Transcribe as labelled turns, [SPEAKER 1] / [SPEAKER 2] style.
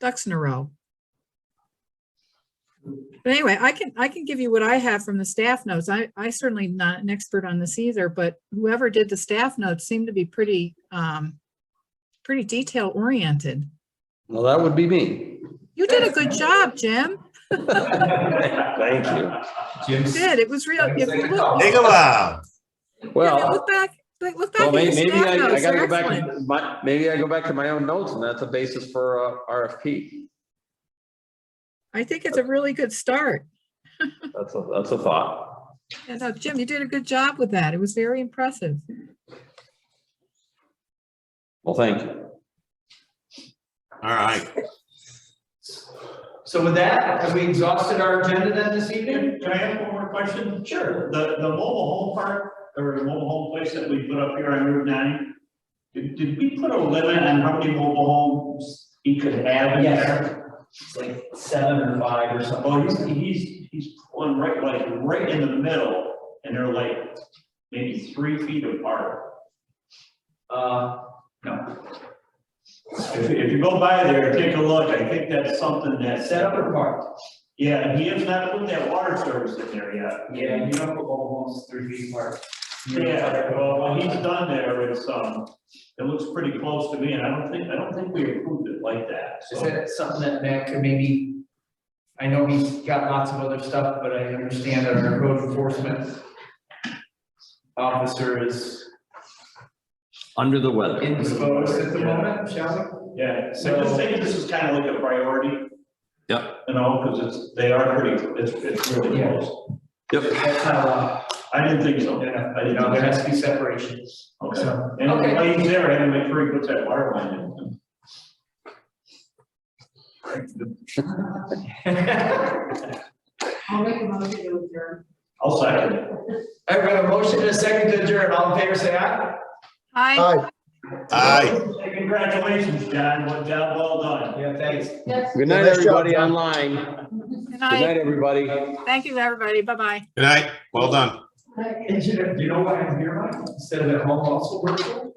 [SPEAKER 1] ducks in a row. But anyway, I can, I can give you what I have from the staff notes. I, I certainly not an expert on this either, but whoever did the staff notes seemed to be pretty, um, pretty detail oriented.
[SPEAKER 2] Well, that would be me.
[SPEAKER 1] You did a good job, Jim.
[SPEAKER 2] Thank you.
[SPEAKER 1] You Did. It was real. If you look,
[SPEAKER 3] Take a
[SPEAKER 1] yeah,
[SPEAKER 3] while.
[SPEAKER 1] but
[SPEAKER 2] Well,
[SPEAKER 1] look back, look look back.
[SPEAKER 2] well,
[SPEAKER 1] at
[SPEAKER 2] may-
[SPEAKER 1] the
[SPEAKER 2] maybe
[SPEAKER 1] staff
[SPEAKER 2] I, I
[SPEAKER 1] notes.
[SPEAKER 2] gotta
[SPEAKER 1] They're
[SPEAKER 2] go back,
[SPEAKER 1] excellent.
[SPEAKER 2] to my, maybe I go back to my own notes and that's a basis for uh, a RFP.
[SPEAKER 1] I think it's a really good start.
[SPEAKER 2] That's a, that's a thought.
[SPEAKER 1] And uh, Jim, you did a good job with that. It was very impressive.
[SPEAKER 2] Well, thank you.
[SPEAKER 3] All right.
[SPEAKER 4] So with that, have we exhausted our agenda then this evening?
[SPEAKER 5] Can I have one more question? Sure. The, the mobile home park, or the mobile home place that we put up here on Route nine, did, did we put a limit on how many mobile homes he could have in there?
[SPEAKER 4] It's like seven or five or something.
[SPEAKER 5] Oh, he's, he's, he's pulling right, like, right in the middle, and they're like, maybe three feet apart.
[SPEAKER 4] Uh, no,
[SPEAKER 5] If, if you go by there, take a look, I think that's something that's
[SPEAKER 4] set up or parked?
[SPEAKER 5] Yeah, and he has not put that water service in there yet.
[SPEAKER 4] Yeah, you don't put mobile homes three feet apart.
[SPEAKER 5] Yeah, well, what he's done there is, um, it looks pretty close to me, and I don't think, I don't think we approved it like that,
[SPEAKER 4] Is
[SPEAKER 5] so.
[SPEAKER 4] that something that Matt could maybe, I know he's got lots of other stuff, but I understand that our code enforcement officer is
[SPEAKER 2] Under the weather.
[SPEAKER 4] indisposed at the moment, shall
[SPEAKER 5] Yeah, so just think this is kind of like a priority.
[SPEAKER 2] Yep.
[SPEAKER 5] You know, because it's, they are pretty, it's, it's really
[SPEAKER 4] Yeah.
[SPEAKER 5] close.
[SPEAKER 4] we?
[SPEAKER 2] Yep.
[SPEAKER 4] That's not allowed.
[SPEAKER 5] I didn't think so.
[SPEAKER 4] Yeah,
[SPEAKER 5] I
[SPEAKER 4] you
[SPEAKER 5] didn't
[SPEAKER 4] know, there
[SPEAKER 5] think
[SPEAKER 4] has to be separation,
[SPEAKER 5] so. Okay.
[SPEAKER 4] so.
[SPEAKER 5] And
[SPEAKER 4] Okay.
[SPEAKER 5] while he's there, I had to make sure he puts that water line in.
[SPEAKER 6] I'll make a motion to adjourn.
[SPEAKER 5] I'll second it.
[SPEAKER 4] All right, we have a motion and a second to adjourn. All in favor, say aye.
[SPEAKER 1] Hi,
[SPEAKER 3] Aye.
[SPEAKER 5] Hey, Congratulations, John, what job well done.
[SPEAKER 4] Yeah, thanks.
[SPEAKER 6] Yes.
[SPEAKER 2] Good night, everybody online. Good
[SPEAKER 1] good
[SPEAKER 2] night,
[SPEAKER 1] night.
[SPEAKER 2] everybody.
[SPEAKER 1] Thank you, everybody. Bye-bye.
[SPEAKER 3] Good night. Well done.
[SPEAKER 4] And you know, you know what I'm here on? Instead of at home, also work.